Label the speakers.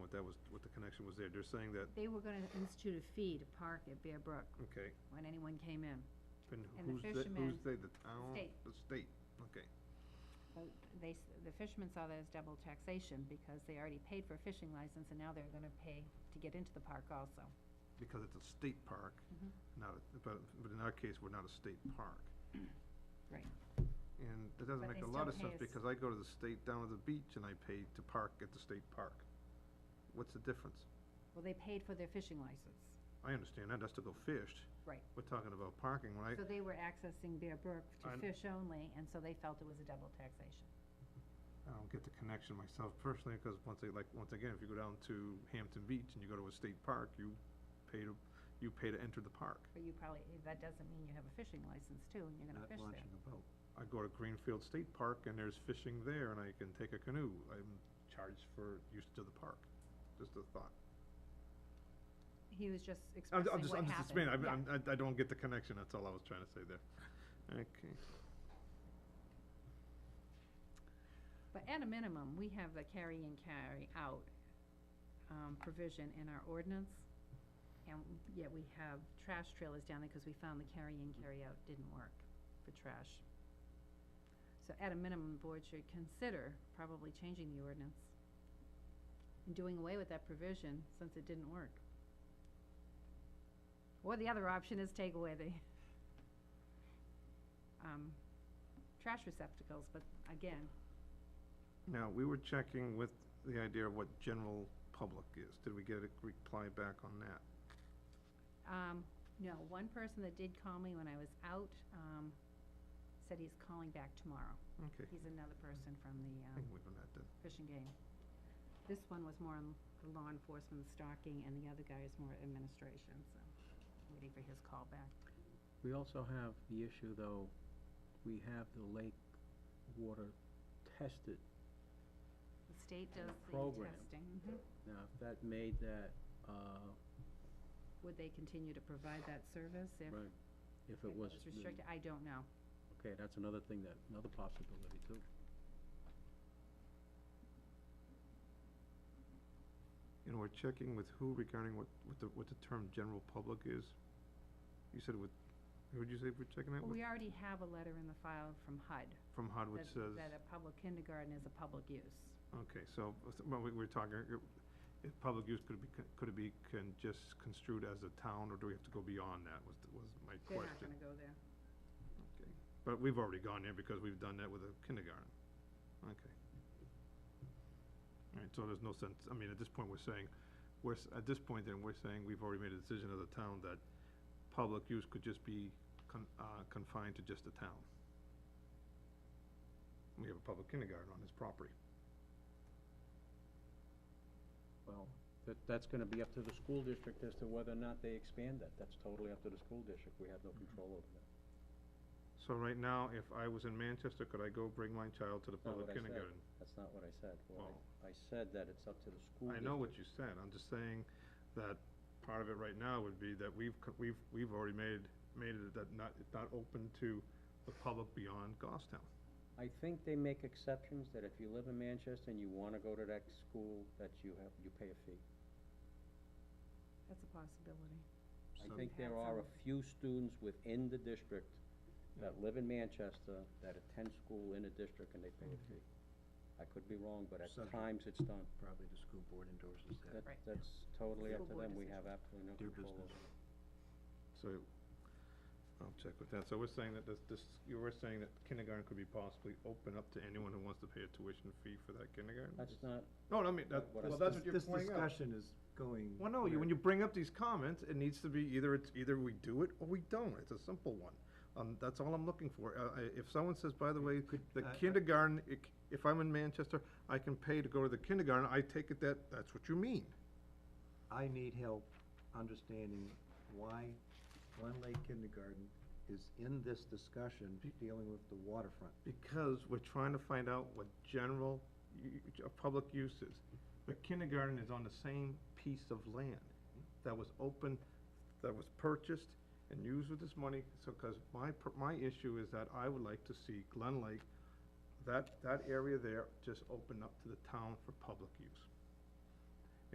Speaker 1: what that was, what the connection was there. They're saying that,
Speaker 2: They were gonna institute a fee to park at Bear Brook
Speaker 1: okay,
Speaker 2: when anyone came in.
Speaker 1: and
Speaker 2: And the
Speaker 1: who's they, who's
Speaker 2: fishermen-
Speaker 1: they, the town?
Speaker 2: State.
Speaker 1: The state, okay.
Speaker 2: But they, s- the fishermen saw that as double taxation because they already paid for a fishing license and now they're gonna pay to get into the park also.
Speaker 1: Because it's a state park,
Speaker 2: Mhm.
Speaker 1: not, a- but, but in our case, we're not a state park.
Speaker 2: Right.
Speaker 1: And it doesn't
Speaker 2: But
Speaker 1: make
Speaker 2: they
Speaker 1: a lot
Speaker 2: still
Speaker 1: of sense,
Speaker 2: pay us.
Speaker 1: because I go to the state, down at the beach, and I pay to park at the state park. What's the difference?
Speaker 2: Well, they paid for their fishing license.
Speaker 1: I understand that, that's to go fish.
Speaker 2: Right.
Speaker 1: We're talking about parking, when I,
Speaker 2: So they were accessing Bear Brook to
Speaker 1: I'm-
Speaker 2: fish only, and so they felt it was a double taxation.
Speaker 1: I don't get the connection myself personally, because once, they- like, once again, if you go down to Hampton Beach and you go to a state park, you pay to, you pay to enter the park.
Speaker 2: But you probably, that doesn't mean you have a fishing license too, and you're gonna fish there.
Speaker 3: a boat.
Speaker 1: I go to Greenfield State Park and there's fishing there and I can take a canoe, I'm charged for use to the park, just a thought.
Speaker 2: He was just
Speaker 1: I'm,
Speaker 2: expressing
Speaker 1: I'm
Speaker 2: what
Speaker 1: just, I'm
Speaker 2: happened.
Speaker 1: just explaining,
Speaker 2: Yeah.
Speaker 1: I'm- I'm- I, I don't get the connection, that's all I was trying to say there. Okay,
Speaker 2: But at a minimum, we have the carry and carry out um, provision in our ordinance, and yet we have trash trailers down there because we found the carry in, carry out didn't work for trash. So at a minimum, the board should consider probably changing the ordinance and doing away with that provision since it didn't work. Or the other option is take away the um, trash receptacles, but again,
Speaker 1: now, we were checking with the idea of what general public is, did we get a reply back on that?
Speaker 2: Um, no, one person that did call me when I was out, um, said he's calling back tomorrow.
Speaker 1: Okay,
Speaker 2: He's another person from the,
Speaker 1: I
Speaker 2: um,
Speaker 1: think we've done that then.
Speaker 2: fishing game. This one was more on the law enforcement stalking, and the other guy is more administration, so waiting for his call back.
Speaker 3: We also have the issue, though, we have the lake water tested.
Speaker 2: The state does the
Speaker 3: Program.
Speaker 2: testing. Mhm.
Speaker 3: Now, if that made that, uh,
Speaker 2: Would they continue to provide that service if
Speaker 3: right, if
Speaker 2: it
Speaker 3: it was.
Speaker 2: was
Speaker 3: the-
Speaker 2: restricted? I don't know.
Speaker 3: Okay, that's another thing that, another possibility, too.
Speaker 1: And we're checking with who regarding what, what the, what the term general public is? You said with, who'd you say we're checking that
Speaker 2: Well,
Speaker 1: with?
Speaker 2: we already have a letter in the file from HUD
Speaker 1: From HUD, which says,
Speaker 2: that, that a public kindergarten is a public use.
Speaker 1: okay, so, well, we, we're talking, uh, if public use could be, con- could it be can just construed as a town, or do we have to go beyond that, was, was my
Speaker 2: They're not
Speaker 1: question.
Speaker 2: gonna go there.
Speaker 1: Okay. But we've already gone there because we've done that with a kindergarten, okay. All right, so there's no sense, I mean, at this point, we're saying, we're, s- at this point then, we're saying we've already made a decision as a town that public use could just be con- uh, confined to just the town. We have a public kindergarten on this property.
Speaker 3: Well, that, that's gonna be up to the school district as to whether or not they expand that. That's totally up to the school district. We have no
Speaker 1: Mm-hmm.
Speaker 3: control over that.
Speaker 1: So right now, if I was in Manchester, could I go bring my child to the
Speaker 3: Not what
Speaker 1: public
Speaker 3: I said.
Speaker 1: kindergarten?
Speaker 3: That's not what I said. What
Speaker 1: Well-
Speaker 3: I, I said that it's up to the school
Speaker 1: I
Speaker 3: district.
Speaker 1: know what you said, I'm just saying that part of it right now would be that we've, co- we've, we've already made, made it that not, it's not open to the public beyond Goffstown.
Speaker 3: I think they make exceptions that if you live in Manchester and you wanna go to that school, that you have, you pay a fee.
Speaker 2: That's a possibility.
Speaker 1: So-
Speaker 3: I think there
Speaker 2: Had
Speaker 3: are a
Speaker 2: some-
Speaker 3: few students within the district that
Speaker 1: Yeah.
Speaker 3: live in Manchester, that attend school in the district and they pay a fee. I could be wrong, but at
Speaker 4: Subject.
Speaker 3: times it's done.
Speaker 4: Probably the school board endorses
Speaker 3: That,
Speaker 4: that.
Speaker 2: Right.
Speaker 3: that's totally up
Speaker 2: School
Speaker 3: to
Speaker 2: board
Speaker 3: them. We
Speaker 2: decision.
Speaker 3: have absolutely no
Speaker 4: Their
Speaker 3: control over
Speaker 4: business.
Speaker 3: it.
Speaker 1: So, I'll check with that, so we're saying that this, this, you were saying that kindergarten could be possibly open up to anyone who wants to pay a tuition fee for that kindergarten?
Speaker 3: That's not,
Speaker 1: No, no, I mean, that,
Speaker 3: What I
Speaker 1: well,
Speaker 3: said.
Speaker 1: that's what you're pointing
Speaker 4: This
Speaker 1: out.
Speaker 4: discussion is going.
Speaker 1: Well, no, you, when you bring up these comments, it needs to be either it's, either we do it or we don't, it's a simple one. Um, that's all I'm looking for, uh, I- if someone says, by the way, the
Speaker 4: I- I-
Speaker 1: kindergarten, i- if I'm in Manchester, I can pay to go to the kindergarten, I take it that, that's what you mean.
Speaker 4: I need help understanding why Glen Lake Kindergarten is in this discussion dealing with the waterfront.
Speaker 1: Because we're trying to find out what general, u- u- uh, public use is. The kindergarten is on the same piece of land that was open, that was purchased and used with this money. So, cause my, pr- my issue is that I would like to see Glen Lake, that, that area there just open up to the town for public use.